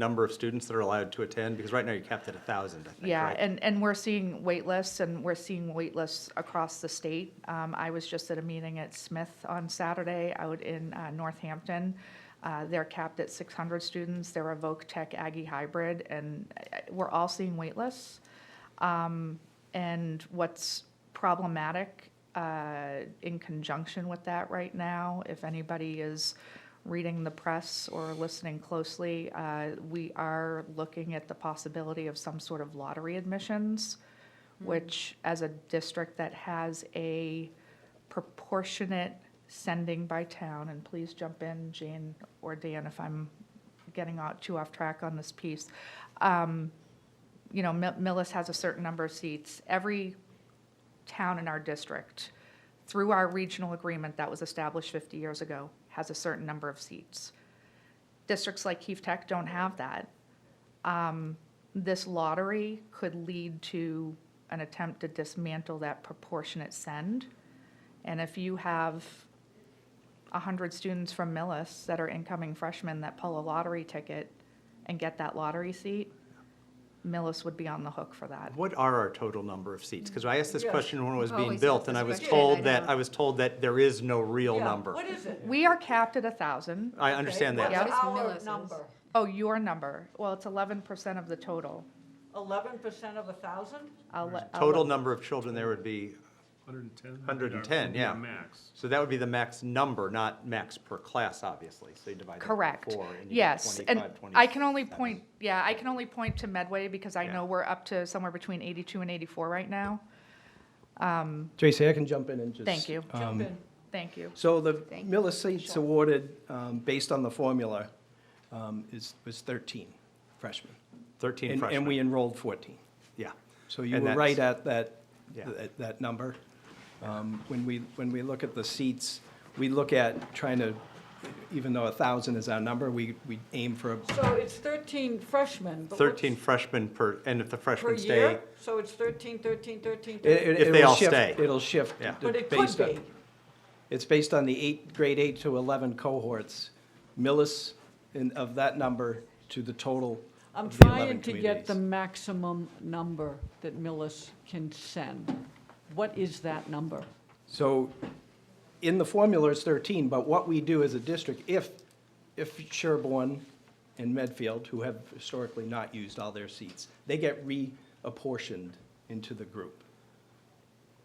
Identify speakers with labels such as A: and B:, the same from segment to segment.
A: number of students that are allowed to attend? Because right now you're capped at a thousand, I think,
B: Yeah,
A: right?
B: and, and we're seeing wait lists, and we're seeing wait lists across the state. Um, I was just at a meeting at Smith on Saturday out in uh, Northampton. Uh, They're capped at 600 students. They're a Voc Tech Aggie hybrid, and uh, we're all seeing wait lists. Um, And what's problematic uh, in conjunction with that right now, if anybody is reading the press or listening closely, uh, we are looking at the possibility of some sort of lottery admissions, which, as a district that has a proportionate sending by town, and please jump in, Jane or Dan, if I'm getting out too off track on this piece. Um, You know, Mi- Millis has a certain number of seats. Every town in our district, through our regional agreement that was established 50 years ago, has a certain number of seats. Districts like Keefe Tech don't have that. Um, This lottery could lead to an attempt to dismantle that proportionate send. And if you have 100 students from Millis that are incoming freshmen that pull a lottery ticket and get that lottery seat, Millis would be on the hook for that.
A: What are our total number of seats? Because I asked this
C: Yeah.
A: question when it was
D: We've
A: being
D: always
A: built,
D: had
A: and I
D: this
A: was
D: question, I
A: told that,
D: know.
A: I was told that there is no real
C: Yeah,
A: number.
C: What is it?
B: We are capped at 1,000.
A: I understand
C: Okay,
A: that.
B: Yeah.
C: What's
D: What
C: our
D: is Millis's?
C: number?
B: Oh, your number. Well, it's eleven percent of the total.
C: Eleven percent of a thousand?
B: I'll let. I'll
A: Total
B: let-
A: number of children there would be,
E: 110?
A: 110,
E: Would be
A: yeah.
E: our Max.
A: so that would be the max number, not max per class, obviously. So you divide that by
B: Correct.
A: four. and you get
B: Yes, and
A: 25,
B: I can only
A: 27.
B: point, yeah, I can only point to Medway because I
A: Yeah.
B: know we're up to somewhere between eighty-two and eighty-four right now.
F: Tracy, I can jump in and just.
B: Thank you.
A: uh,
F: Um,
C: Jump in.
B: Thank you.
F: So the
D: Thank you.
F: Millis seats awarded, um, based on the formula, um, is, was 13 freshmen.
A: Thirteen
F: And- And we
A: freshmen,
F: enrolled 14.
A: yeah.
F: So you
A: And
F: were
A: that's-
F: right at that,
A: Yeah.
F: that- that number. Um, When we, when we look at the seats, we look at trying to, even though 1,000 is our number, we, we aim for, a-
C: So it's thirteen freshmen. but what's-
A: Thirteen freshmen per, and if the
C: Per
A: freshmen stay,
C: year? So it's thirteen, thirteen, thirteen,
F: it-
C: thirteen.
F: it-
A: If
F: it'll
A: they all
F: shift-
A: stay.
F: It'll shift.
A: Yeah.
C: But it could
F: based on-
C: be.
F: It's based on the eight, grade eight to 11 cohorts. Millis, in- of that number to the total
C: I'm
F: of the 11
C: trying to get the
F: communities.
C: maximum number that Millis can send. What is that number?
F: So in the formula, it's 13, but what we do as a district, if, if Sherborne and Medfield, who have historically not used all their seats, they get reapportioned into the group.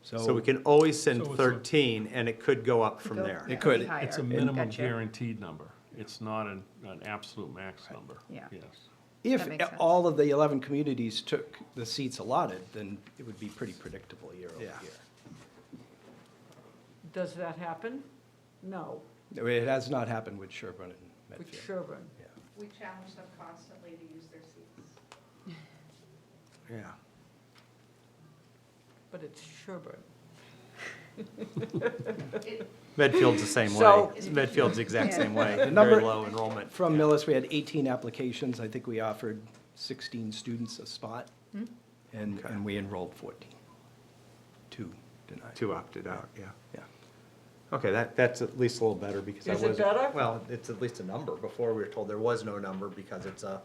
A: so we
F: So
A: can always send
E: So it's a-
A: thirteen, and it could go up from
B: Go-
A: there.
B: yeah,
F: could.
B: it'd be
E: It's a
B: higher.
E: minimum
B: Gotcha.
E: guaranteed number. It's not an, an absolute max number.
B: Yeah.
E: Yes.
F: if
B: That makes sense.
F: all of the 11 communities took the seats allotted, then it would be pretty predictable year over
A: Yeah.
F: year.
C: Does that happen? No,
F: It has not happened with Sherborne
C: with
F: and Medfield.
C: Sherburne.
F: Yeah.
B: We challenge them constantly to use their seats.
A: Yeah.
C: but it's Sherburne.
A: Medfield's the same way.
C: So-
A: Medfield's the exact same way, very
F: number-
A: low enrollment.
F: From Millis, we had 18 applications. I think we offered 16 students a spot, and, and we enrolled 14. Two denied.
A: Two opted out, yeah.
F: Yeah.
A: Okay, that, that's at least a little better because I
C: Is it
A: wasn't.
C: better?
A: Well, it's at least a number. Before we were told there was no number because it's a,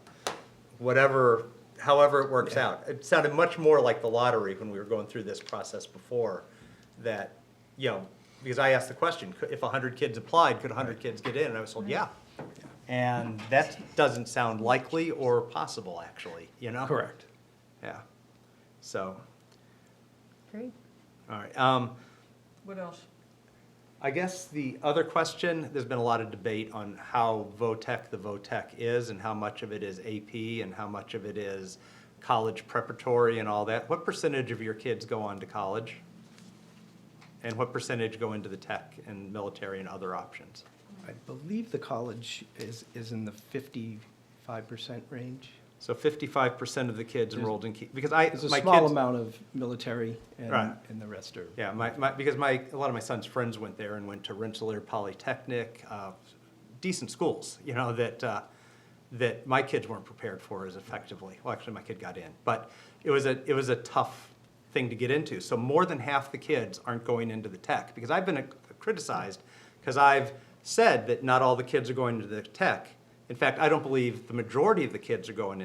A: whatever, however it works out. It sounded much more like the lottery when we were going through this process before that, you know, because I asked the question, could- if hundred kids applied, could hundred kids get in? And I was told, yeah. And that doesn't sound likely or possible, actually, you know?
F: Correct.
A: Yeah. So,
D: Great.
A: all right. Um,
C: What else?
A: I guess the other question, there's been a lot of debate on how VOTEC the VOTEC is and how much of it is AP and how much of it is college preparatory and all that. What percentage of your kids go on to college? And what percentage go into the tech and military and other options?
F: I believe the college is, is in the 55% range.
A: So fifty-five percent of the kids enrolled in, Ke- because I, my
F: There's
A: kids.
F: a small amount of military, and,
A: Right.
F: and the rest are.
A: Yeah, my, my, because my, a lot of my son's friends went there and went to Rensselaer Polytechnic, uh, decent schools, you know, that, uh, that my kids weren't prepared for as effectively. Well, actually, my kid got in, but it was a, it was a tough thing to get into. So more than half the kids aren't going into the tech, because I've been uh, criticized, because I've said that not all the kids are going into the tech, In fact, I don't believe the majority of the kids are going